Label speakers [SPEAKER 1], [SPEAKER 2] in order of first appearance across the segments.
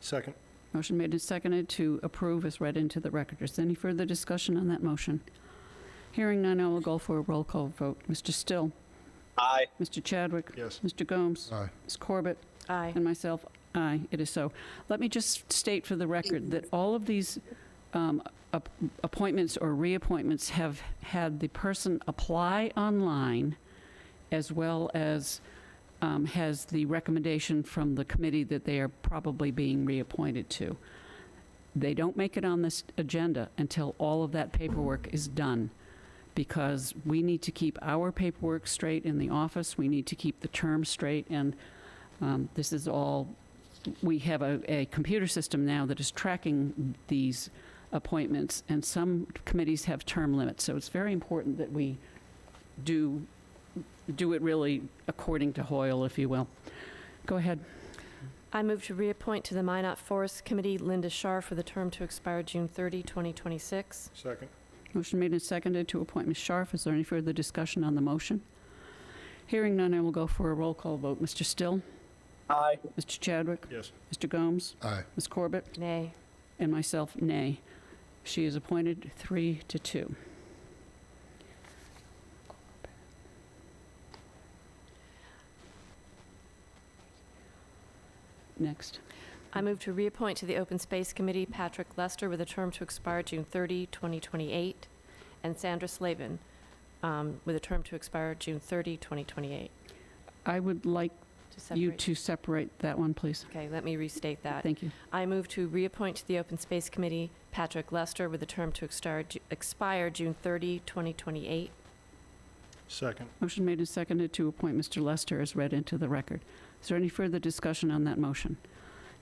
[SPEAKER 1] Second.
[SPEAKER 2] Motion made and seconded to approve is read into the record. Is there any further discussion on that motion? Hearing none, I will go for a roll call vote. Mr. Still?
[SPEAKER 3] Aye.
[SPEAKER 2] Mr. Chadwick?
[SPEAKER 1] Yes.
[SPEAKER 2] Mr. Gomes?
[SPEAKER 4] Aye.
[SPEAKER 2] Ms. Corbett?
[SPEAKER 5] Aye.
[SPEAKER 2] And myself, aye, it is so. Let me just state for the record that all of these um, ap- appointments or reappointments have had the person apply online as well as um, has the recommendation from the committee that they are probably being reappointed to. They don't make it on this agenda until all of that paperwork is done because we need to keep our paperwork straight in the office. We need to keep the term straight. And um, This is all, we have a, a computer system now that is tracking these appointments, and some committees have term limits, so it's very important that we do, do it really according to Hoyle, if you will. Go ahead.
[SPEAKER 5] I move to reappoint to the Minot Forest Committee Linda Shar for the term to expire June 30, 2026.
[SPEAKER 1] Second.
[SPEAKER 2] Motion made and seconded to appoint Ms. Scharf. Is there any further discussion on the motion? Hearing none, I will go for a roll call vote. Mr. Still?
[SPEAKER 3] Aye.
[SPEAKER 2] Mr. Chadwick?
[SPEAKER 1] Yes.
[SPEAKER 2] Mr. Gomes?
[SPEAKER 4] Aye.
[SPEAKER 2] Ms. Corbett?
[SPEAKER 5] Nay.
[SPEAKER 2] and myself, nay. She is appointed three to two. Next.
[SPEAKER 5] I move to reappoint to the Open Space Committee Patrick Lester with a term to expire June 30, 2028, and Sandra Slavin um, with a term to expire June 30, 2028.
[SPEAKER 2] I would like
[SPEAKER 5] To
[SPEAKER 2] you
[SPEAKER 5] separate-
[SPEAKER 2] to separate that one, please.
[SPEAKER 5] Okay, let me restate that.
[SPEAKER 2] Thank you.
[SPEAKER 5] I move to reappoint to the Open Space Committee Patrick Lester with a term to extar- expire June 30, 2028.
[SPEAKER 1] Second.
[SPEAKER 2] Motion made and seconded to appoint Mr. Lester as read into the record. Is there any further discussion on that motion?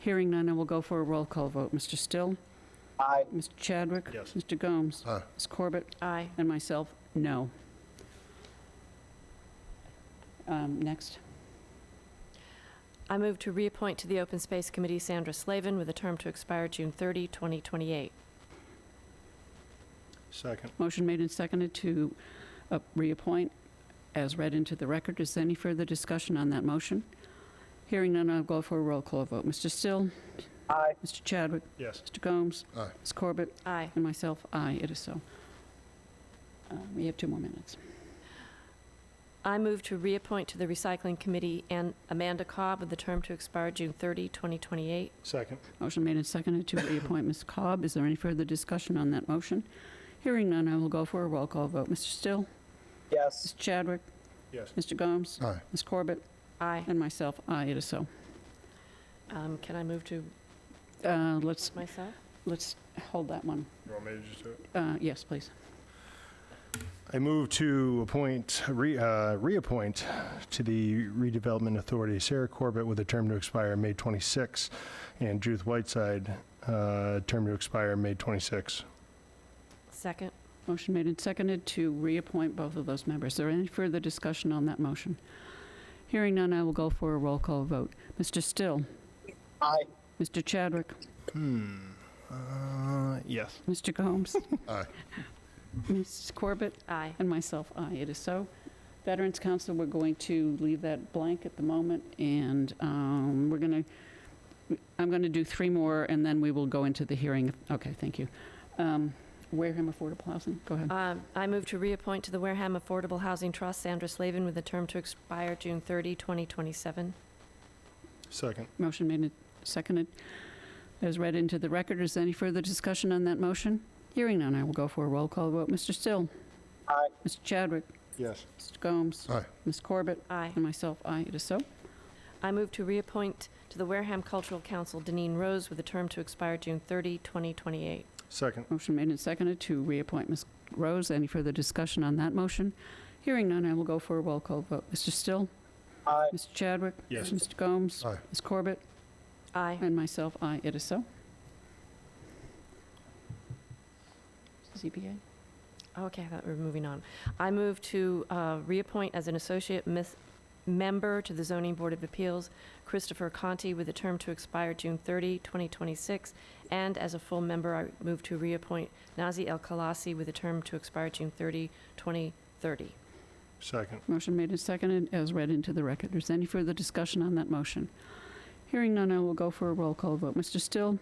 [SPEAKER 2] Hearing none, I will go for a roll call vote. Mr. Still?
[SPEAKER 3] Aye.
[SPEAKER 2] Mr. Chadwick?
[SPEAKER 1] Yes.
[SPEAKER 2] Mr. Gomes?
[SPEAKER 4] Aye.
[SPEAKER 2] Ms. Corbett?
[SPEAKER 5] Aye.
[SPEAKER 2] And myself, no. Um, Next.
[SPEAKER 5] I move to reappoint to the Open Space Committee Sandra Slavin with a term to expire June 30, 2028.
[SPEAKER 1] Second.
[SPEAKER 2] Motion made and seconded to uh, reappoint as read into the record. Is there any further discussion on that motion? Hearing none, I'll go for a roll call vote. Mr. Still?
[SPEAKER 3] Aye.
[SPEAKER 2] Mr. Chadwick?
[SPEAKER 1] Yes.
[SPEAKER 2] Mr. Gomes?
[SPEAKER 4] Aye.
[SPEAKER 2] Ms. Corbett?
[SPEAKER 5] Aye.
[SPEAKER 2] And myself, aye, it is so. Uh, We have two more minutes.
[SPEAKER 5] I move to reappoint to the Recycling Committee An- Amanda Cobb with a term to expire June 30, 2028.
[SPEAKER 1] Second.
[SPEAKER 2] Motion made and seconded to reappoint Ms. Cobb. Is there any further discussion on that motion? Hearing none, I will go for a roll call vote. Mr. Still?
[SPEAKER 3] Yes.
[SPEAKER 2] Mr. Chadwick?
[SPEAKER 1] Yes.
[SPEAKER 2] Mr. Gomes?
[SPEAKER 4] Aye.
[SPEAKER 2] Ms. Corbett?
[SPEAKER 5] Aye.
[SPEAKER 2] And myself, aye, it is so.
[SPEAKER 5] Um, Can I move to
[SPEAKER 2] Uh, Let's,
[SPEAKER 5] myself?
[SPEAKER 2] let's hold that one.
[SPEAKER 1] You want me to just do it?
[SPEAKER 2] Uh, Yes, please.
[SPEAKER 1] I move to appoint, re- uh, reappoint to the Redevelopment Authority Sarah Corbett with a term to expire May 26, and Judith Whiteside, uh, term to expire May 26.
[SPEAKER 5] Second.
[SPEAKER 2] Motion made and seconded to reappoint both of those members. Is there any further discussion on that motion? Hearing none, I will go for a roll call vote. Mr. Still?
[SPEAKER 3] Aye.
[SPEAKER 2] Mr. Chadwick?
[SPEAKER 1] Uh, yes.
[SPEAKER 2] Mr. Gomes?
[SPEAKER 4] Aye.
[SPEAKER 2] Ms. Corbett?
[SPEAKER 5] Aye.
[SPEAKER 2] And myself, aye, it is so. Veterans Council, we're going to leave that blank at the moment, and um, we're going to, I'm going to do three more, and then we will go into the hearing. Okay, thank you. Um, Wareham Affordable Housing, go ahead.
[SPEAKER 5] Um, I move to reappoint to the Wareham Affordable Housing Trust Sandra Slavin with a term to expire June 30, 2027.
[SPEAKER 1] Second.
[SPEAKER 2] Motion made and seconded. As read into the record, is there any further discussion on that motion? Hearing none, I will go for a roll call vote. Mr. Still?
[SPEAKER 3] Aye.
[SPEAKER 2] Mr. Chadwick?
[SPEAKER 1] Yes.
[SPEAKER 2] Mr. Gomes?
[SPEAKER 4] Aye.
[SPEAKER 2] Ms. Corbett?
[SPEAKER 5] Aye.
[SPEAKER 2] And myself, aye, it is so.
[SPEAKER 5] I move to reappoint to the Wareham Cultural Council Deneen Rose with a term to expire June 30, 2028.
[SPEAKER 1] Second.
[SPEAKER 2] Motion made and seconded to reappoint Ms. Rose. Any further discussion on that motion? Hearing none, I will go for a roll call vote. Mr. Still?
[SPEAKER 3] Aye.
[SPEAKER 2] Mr. Chadwick?
[SPEAKER 1] Yes.
[SPEAKER 2] Mr. Gomes?
[SPEAKER 4] Aye.
[SPEAKER 2] Ms. Corbett?
[SPEAKER 5] Aye.
[SPEAKER 2] And myself, aye, it is so. ZBA?
[SPEAKER 5] Okay, I thought we were moving on. I move to uh, reappoint as an associate mis- member to the Zoning Board of Appeals Christopher Conti with a term to expire June 30, 2026. And as a full member, I move to reappoint Nazi El Khalasi with a term to expire June 30, 2030.
[SPEAKER 1] Second.
[SPEAKER 2] Motion made and seconded as read into the record. Is there any further discussion on that motion? Hearing none, I will go for a roll call vote. Mr. Still?